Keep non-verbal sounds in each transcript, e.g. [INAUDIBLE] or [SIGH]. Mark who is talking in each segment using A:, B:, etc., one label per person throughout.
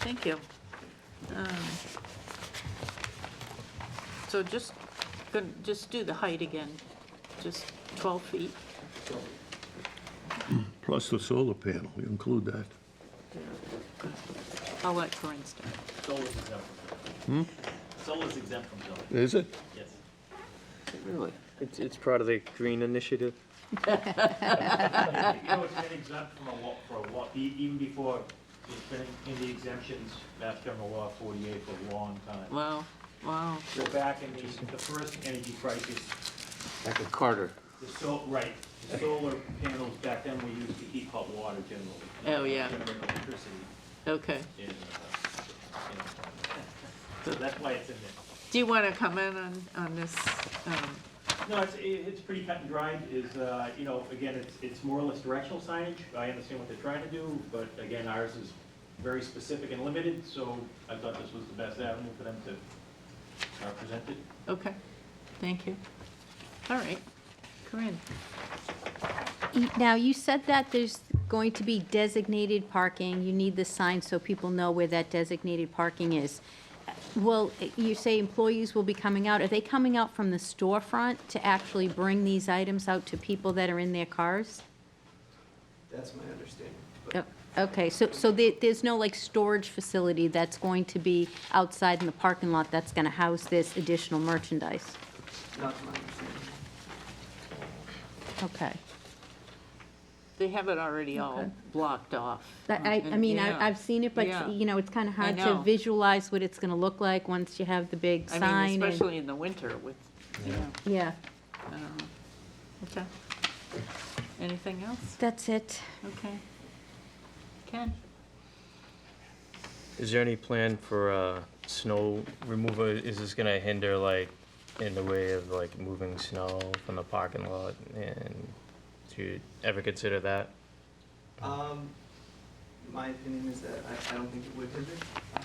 A: Thank you. Um, So just, gonna- just do the height again, just 12 feet.
B: Plus the solar panel, you include that.
A: I'll let Corinne start.
C: Solar's exempt from
A: Hmm?
C: zoning. Solar's exempt from zoning,
B: Is it?
C: yes.
D: Really? It's, it's part of the green initiative?
A: [LAUGHS]
C: You know, it's been exempt from a lot, for a lot, e- even before, it's been in the exemptions, Mass General Law forty-eight for a long time.
A: Wow, wow.
C: So back in the, the first energy crisis,
D: Like a Carter.
C: the sol, right, the solar panels back then were used to heat hot water generally.
A: Oh, yeah.
C: Generate electricity
A: Okay.
C: in, uh,
A: [LAUGHS]
C: in- So that's why it's in there.
A: Do you want to comment on, on this? um,
C: No, it's, it- it's pretty cut and dried, is, uh, you know, again, it's, it's more or less directional signage, I understand what they're trying to do, but again, ours is very specific and limited, so I thought this was the best avenue for them to uh, present it.
A: Okay, thank you. All right, Corinne.
E: Y- Now, you said that there's going to be designated parking. You need the sign so people know where that designated parking is. Well, you say employees will be coming out. Are they coming out from the storefront to actually bring these items out to people that are in their cars?
F: That's my understanding.
E: Oh,
F: But
E: Okay, so, so there, there's no like storage facility that's going to be outside in the parking lot that's going to house this additional merchandise?
F: not my understanding.
E: Okay.
A: They have it already all
E: Okay.
A: blocked off.
E: But I, I mean, I-
A: Yeah.
E: I've seen it,
A: Yeah.
E: but, you know, it's kind of hard
A: know.
E: to visualize what it's going to look like once you have the big sign.
A: I mean,
E: and-
A: especially in the winter with, you know,
E: Yeah,
A: I don't know. Um, Okay. Anything else?
E: that's it.
A: Okay. Ken?
D: Is there any plan for, uh, snow removal? Is this gonna hinder, like, in the way of, like, moving snow from the parking lot? And do you ever consider that?
F: Um, my opinion is that I, I don't think it would hinder, um,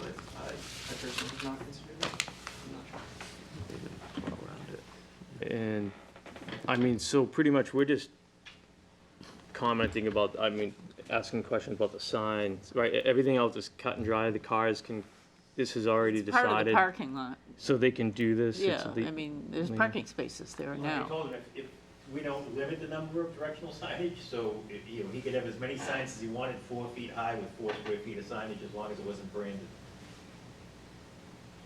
F: but I, I personally would not consider it. I'm not sure.
D: And, I mean, so pretty much we're just commenting about, I mean, asking questions about the signs, right? E- Everything else is cut and dry. The cars can, this is already
A: It's Part of the
D: decided.
A: parking lot,
D: So they can do this? It's
A: yeah,
D: the-
A: I mean, there's
D: Yeah.
A: parking spaces there
C: Like I
A: now.
C: told him, if, if we don't limit the number of directional [LAUGHS] signage, so, if, you know, he could have as many signs as he wanted, four feet high with four square feet of signage, as long as it wasn't branded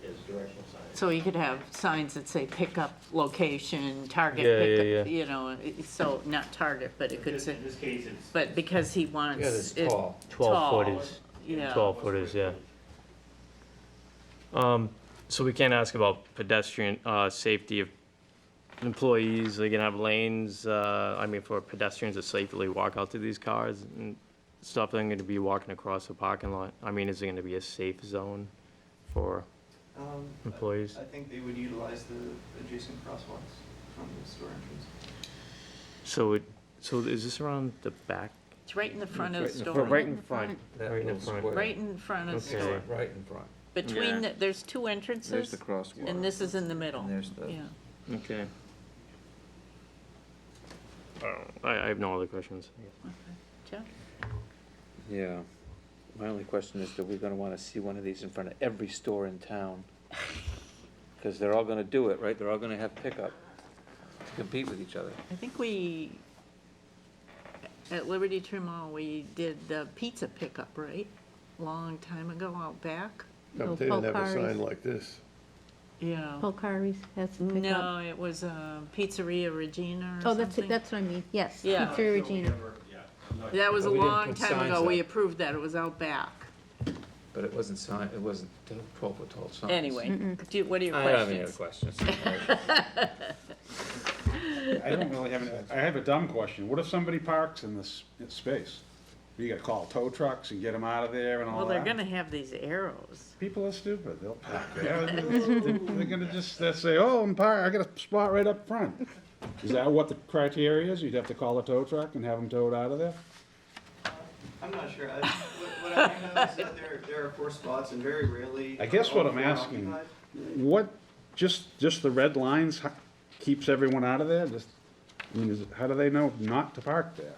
C: as directional signage.
A: So you could have signs that say pickup location, target
D: Yeah, yeah,
A: pickup,
D: yeah.
A: you know, it- so, not target, but it could
C: Because
A: say,
C: In this case, it's.
A: but because he wants.
G: Yeah, it's
A: it
G: tall.
D: 12
A: tall,
D: footers.
A: Yeah.
D: 12 footers, yeah. Um, so we can't ask about pedestrian, uh, safety of employees, they can have lanes, uh, I mean, for pedestrians to safely walk out to these cars and stuff, they're gonna be walking across the parking lot. I mean, is it gonna be a safe zone for
F: Um, I-
D: employees?
F: I think they would utilize the adjacent crosswalks from the store entrance.
D: So it, so is this around the back?
A: It's right in the front of
G: Right
A: the
G: in the
A: store.
G: front.
D: Right in front,
G: That
D: right in
G: little
D: front.
G: square.
A: Right in front of the
D: Okay.
A: store.
G: Right in front.
A: Between,
D: Yeah.
A: the- there's two
G: There's
A: entrances,
G: the crosswalk.
A: and this is in the middle.
G: And there's the-
A: Yeah,
D: okay. Oh, I, I have no other questions.
A: Joe?
G: Yeah. My only question is, that we are gonna wanna see one of these in front of every store in [LAUGHS] town? Because they're all gonna do it, right? They're all gonna have pickup to compete with each other.
A: I think we, at Liberty Tree Mall, we did the pizza pickup, right? Long time ago out back?
B: No, but
E: No
B: They didn't have a
E: Polcari's.
B: sign like this.
A: Yeah.
E: Polcari's has a Oh, pickup.
A: No, it was uh, Pizzeria Regina or
E: Oh, that's,
A: something.
E: it. that's what I mean, yes.
A: Yeah.
C: Uh,
E: Pizzeria
C: so
E: Regina.
C: whatever, yeah, I'm not-
A: That was a
G: But we didn't
A: long
G: put
A: time ago,
G: signs
A: we
G: up.
A: approved that, it was out back.
G: But it wasn't sign, it wasn't twelve foot tall signs.
A: Anyway, do you- what are your
G: I don't have any other
A: questions?
G: questions.
H: I don't really have, an- I have a dumb question. What if somebody parks in this space? You gotta call tow trucks and get them out of there and all
A: Well,
H: that?
A: they're gonna have these arrows.
H: People are stupid. They'll park there. They're they're gonna just, they'll say, oh, I'm parked, I got a spot right up front. Is that what the criteria is? You'd have to call a tow truck and have them towed out of there?
F: I'm not sure. I, what, what I do know is that there, there are four spots and very rarely.
H: I guess
F: are
H: what
F: all
H: I'm
F: four
H: asking-
F: occupied.
H: What, just, just the red lines h- keeps everyone out of there? Just, I mean, is, it- how do they know not to park there?